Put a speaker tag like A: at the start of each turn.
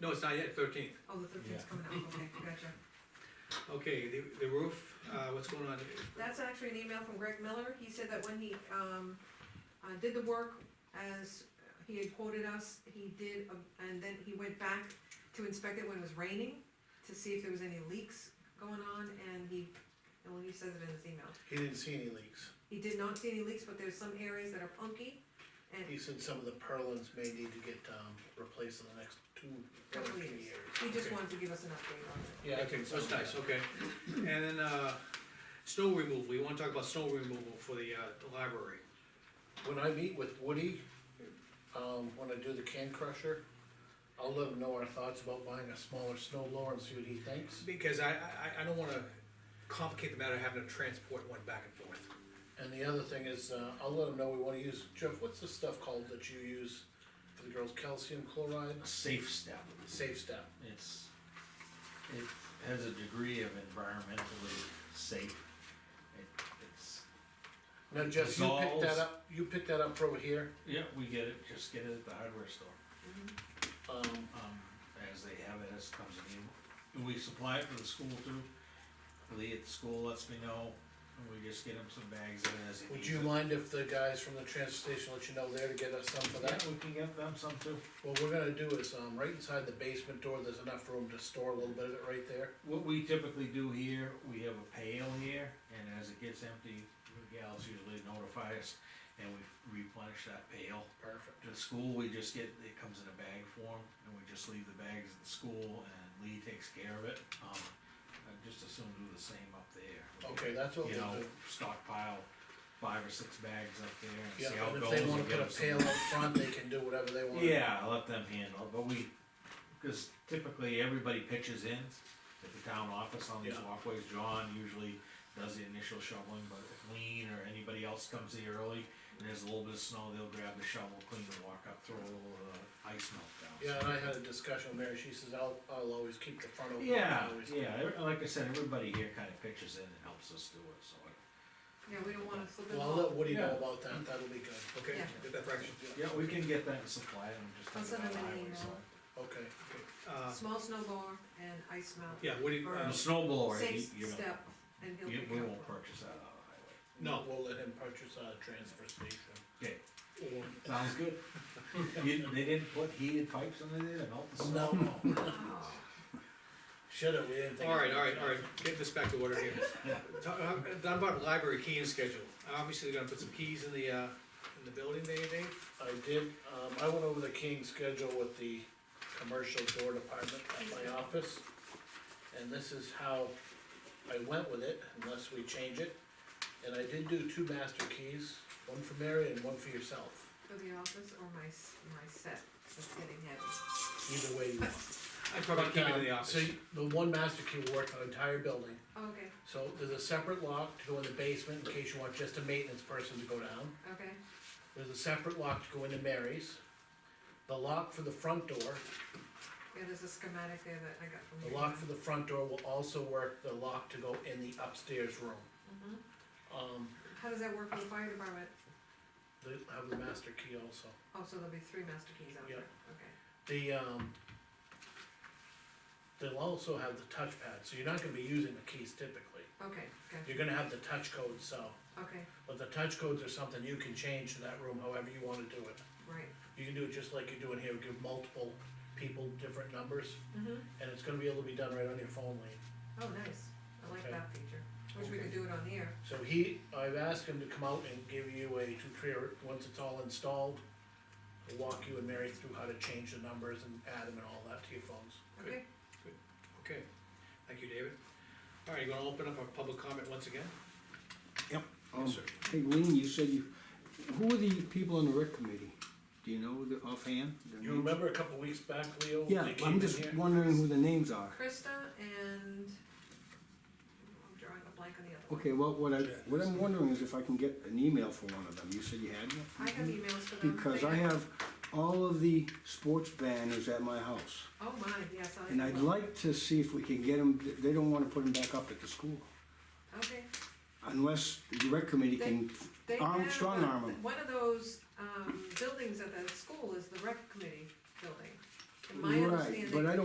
A: No, it's not yet, thirteenth.
B: Oh, the thirteenth's
C: Yeah.
B: coming out, okay, gotcha.
A: Okay, the, the roof, uh, what's going on?
B: That's actually an email from Greg Miller, he said that when he, um, uh, did the work as he had quoted us, he did, um, and then he went back to inspect it when it was raining, to see if there was any leaks going on, and he, well, he says it in his email.
C: He didn't see any leaks.
B: He did not see any leaks, but there's some areas that are punky, and
C: He said some of the purlins may need to get, um, replaced in the next two, one or
B: Couple
C: two
B: years.
C: years.
B: he just
A: Okay.
B: wanted to give us an update on it.
C: Yeah,
A: Okay, so it's nice, okay. And then, uh, snow removal, we wanna talk about snow removal for the, uh, the library.
C: When I meet with Woody, um, when I do the can crusher, I'll let him know our thoughts about buying a smaller snow blower and see what he thinks.
A: Because I, I, I don't wanna complicate the matter of having to transport one back and forth.
C: And the other thing is, uh, I'll let him know we wanna use, Jeff, what's the stuff called that you use for the girls, calcium chloride,
D: a safe step.
C: safe step?
D: It's, it has a degree of environmentally safe. It, it's,
C: Now, Jeff, you picked that
D: Dissolves.
C: up, you picked that up over here,
D: yeah, we get it, just get it at the hardware store,
C: um,
D: um, as they have it, as it comes in. We supply it for the school too. Lee at the school lets me know, and we just get him some bags of it as he
C: would
D: needs
C: you
D: it.
C: mind if the guys from the transfer station let you know there to get us some for
D: Yeah,
C: that?
D: we can get them some too.
C: What we're gonna do is, um, right inside the basement door, there's enough room to store a little bit of it right there.
D: What we typically do here, we have a pail here, and as it gets empty, the gals usually notify us, and we replenish that pail.
C: Perfect.
D: To the school, we just get, it comes in a bag form, and we just leave the bags at the school, and Lee takes care of it. Um, I just assume do the same up there.
C: Okay, that's what
D: You
C: we'll
D: know,
C: do.
D: stockpile five or six bags up there and
C: Yeah,
D: see how it
C: and
D: goes.
C: if they wanna
D: and get
C: put a
D: them some-
C: pail up front, they can do whatever they want.
D: yeah, I'll let them handle, it, but we, cause typically everybody pitches in at the town office on these
C: Yeah.
D: walkways, John usually does the initial shoveling, but if Lean or anybody else comes in early, and there's a little bit of snow, they'll grab the shovel, clean the walk up, throw a little, uh, ice melt down.
C: Yeah, and I had a discussion with Mary, she says, I'll, I'll always keep the front open.
D: Yeah,
C: I always-
D: yeah, every- like I said, everybody here kinda pitches in and helps us do it, so. I-
B: Yeah, we don't wanna slip it
C: Well, I'll let
B: along.
C: Woody know
D: Yeah.
C: about that, that'll be good,
A: Okay,
B: Yeah.
A: get that fraction.
D: Yeah, we can get that and supply them, just.
B: I'll
D: leave
B: send
D: it on
B: them an
D: highway,
B: email.
D: so.
C: okay.
A: Uh,
B: Small snow blower and ice melt.
A: yeah, what do you,
D: And
A: uh,
D: The snow blower, he-
B: Safe
D: you know,
B: step, and he'll
D: you-
B: pick
D: we
B: it up.
D: won't purchase that out of the highway.
A: No.
C: We'll let him purchase a transfer station.
D: Okay,
A: or-
D: sounds good. You, they didn't put heated pipes under there to melt the snow?
B: Oh.
C: Should've, we didn't think.
A: All right, all right, all right, get this back to order here.
D: Yeah.
A: Talk, uh, done about library keying schedule, obviously they're gonna put some keys in the, uh, in the building, Dave, Dave?
C: I did, um, I went over the King's schedule with the commercial door department at my office. And this is how I went with it, unless we change it. And I did do two master keys, one for Mary and one for yourself,
B: For the office or my, s- my set that's getting heavy?
C: either way you want.
A: I'd probably keep it in the
C: Um, So
A: office.
C: you- the one master key will work on the entire building.
B: Oh, Okay,
C: So there's a separate lock to go in the basement in case you want just a maintenance person to go down.
B: okay,
C: There's a separate lock to go into Mary's. The lock for the front door
B: yeah, there's a schematic there that I got from.
C: The
B: you.
C: lock for the front door will also work, the lock to go in the upstairs room.
B: Mhm.
C: Um,
B: How does that work for the fire department?
C: they have the master key also.
B: Oh, so there'll be three master keys out there,
C: Yep.
B: okay.
C: The, um, they'll also have the touchpad, so you're not gonna be using the keys typically.
B: Okay, okay,
C: You're gonna have the touch code, so,
B: okay,
C: but the touch codes are something you can change to that room however you wanna do it.
B: right.
C: You can do it just like you're doing here, give multiple people different numbers,
B: Mm-hmm.
C: and it's gonna be able to be done right on your phone, Lean.
B: Oh, nice, I like
C: Okay.
B: that feature. Wish we could
C: Okay.
B: do it on the air.
C: So he, I've asked him to come out and give you a tutorial, once it's all installed, he'll walk you and Mary through how to change the numbers and add them and all that to your phones.
A: Good.
B: Okay,
A: Okay, thank you, David. All right, you gonna open up our public comment once again?
E: Um,
A: Yes, sir.
E: Hey, Lean, you said you, who are the people on the rec committee? Do you know the offhand? their
C: You
E: names?
C: remember a couple weeks back, Leo?
E: Yeah,
C: they came
E: I'm
C: in
E: just
C: here?
E: wondering who the names are.
B: Krista and, I'm drawing a blank on the other one.
E: Okay, well, what I, what I'm wondering is if I can get an email for one of them. You said you had one?
B: I have emails for them.
E: Because
B: They-
E: I have all of the sports banners at my house.
B: Oh, my, yes, I.
E: And I'd
B: well,
E: like to see if we can get them, they don't wanna put them back up at the school.
B: Okay.
E: Unless the rec committee can,
B: They
E: Arm-
B: have
E: strong
B: a-
E: arm 'em.
B: One of those, um, buildings at the school is the rec committee building. my understanding.
E: Right, but I don't